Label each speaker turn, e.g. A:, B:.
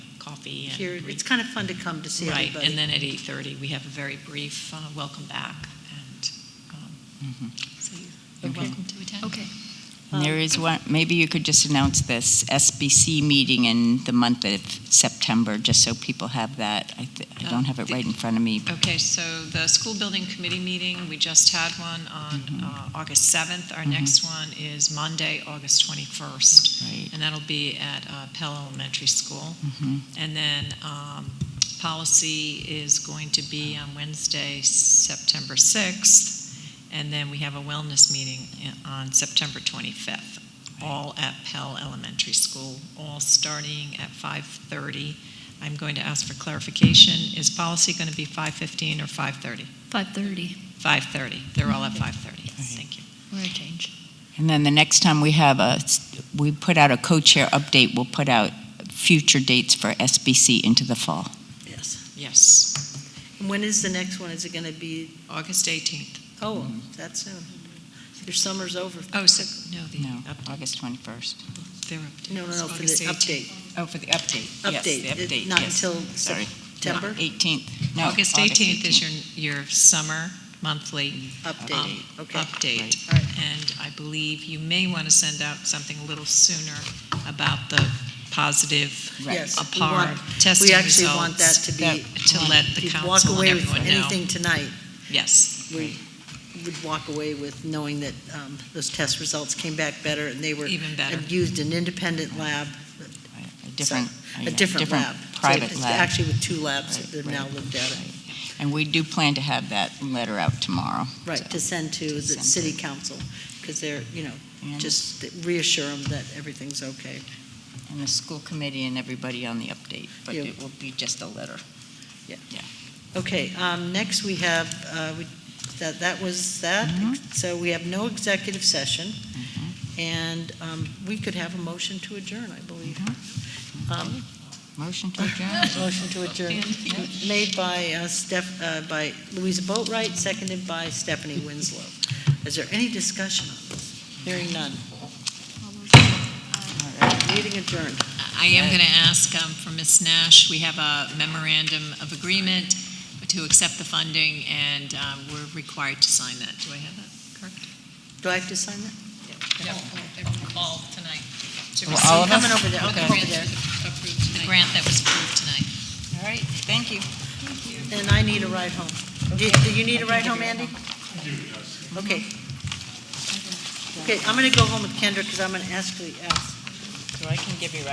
A: be. and
B: Here,
A: re-
B: it's kind of fun to come to see
A: Right, and
B: everybody.
A: then at 8:30, we have a very brief uh, welcome back, and um, so you're
C: Okay.
A: welcome to attend.
D: Okay.
C: And There is one, maybe you could just announce this SBC meeting in the month of September, just so people have that. I th- I don't have it right in front of me.
A: Okay, so the school building committee meeting, we just had one on uh, August 7th. Our
C: Mhm.
A: next one is Monday, August 21st,
C: Right.
A: and that'll be at uh, Pell Elementary School.
C: Mhm.
A: And then um, policy is going to be on Wednesday, September 6th, and then we have a wellness meeting i- on September 25th, all at Pell Elementary School, all starting at 5:30. I'm going to ask for clarification, is policy going to be 5:15 or 5:30?
D: 5:30,
A: 5:30, they're all at 5:30, thank you.
D: we're a change.
C: And then the next time we have a, we put out a co-chair update, we'll put out future dates for SBC into the fall.
B: Yes.
A: Yes,
B: And When is the next one? Is it going to be,
A: August 18th.
B: oh,
A: Mm-hmm.
B: that's soon. Your summer's over.
A: Oh, so, no, the
C: No,
A: update,
C: August 21st.
A: their update.
B: No, no, no, for the
A: August 18th.
B: update.
C: Oh, for the update. Yes, the
B: Update,
C: update,
B: It- not
C: yes.
B: until
C: Sorry.
B: September
C: 18th. No,
A: August 18th is your, your summer monthly um,
B: update. Mm, Okay.
A: update.
B: All right.
A: And I believe you may want to send out something a little sooner about the positive
C: Right.
B: Yes. we
A: APAR
B: want-
A: testing results.
B: We actually want that to be,
C: That-
A: To let the
B: if you walk
A: council and
B: away with
A: everyone know.
B: anything tonight,
A: Yes,
B: we would walk away with knowing that um, those test results came back better and they were
A: even better.
B: and used an independent lab,
C: A different,
B: a different lab. So
C: private
B: it's
C: lab.
B: Actually with two labs that
C: Right,
B: they've now
C: right,
B: looked at it.
C: right. And we do plan to have that letter out tomorrow.
B: Right, to send to the
C: To send
B: city council, because they're, you know,
C: And-
B: just reassure them that everything's okay.
C: And the school committee and everybody on the update, but
B: Yeah.
C: it will be just a letter.
B: Okay, um, next we have, uh, we- that, that was that.
C: Mhm.
B: So we have no executive session,
C: Mm-hmm.
B: and um, we could have a motion to adjourn, I believe.
C: Mm-hmm.
B: Um,
C: Motion to adjourn.
B: Motion to adjourn, made by uh, Steph, uh, by Louisa Boatright, seconded by Stephanie Winslow. Is there any discussion on this? Hearing none. Meeting adjourned.
A: I am going to ask um, from Ms. Nash, we have a memorandum of agreement to accept the funding, and um, we're required to sign that. Do I have that correct?
B: Do I have to sign that?
A: Yeah. Everyone called tonight to
C: Well,
A: receive
C: all of
B: Coming over there, okay.
A: the grant that was approved tonight. The grant that was approved tonight.
C: All right, thank you.
B: And I need a ride home. Do do you need a ride home, Andy? Okay. Okay, I'm going to go home with Kendra because I'm going to actually ask
C: So I can give you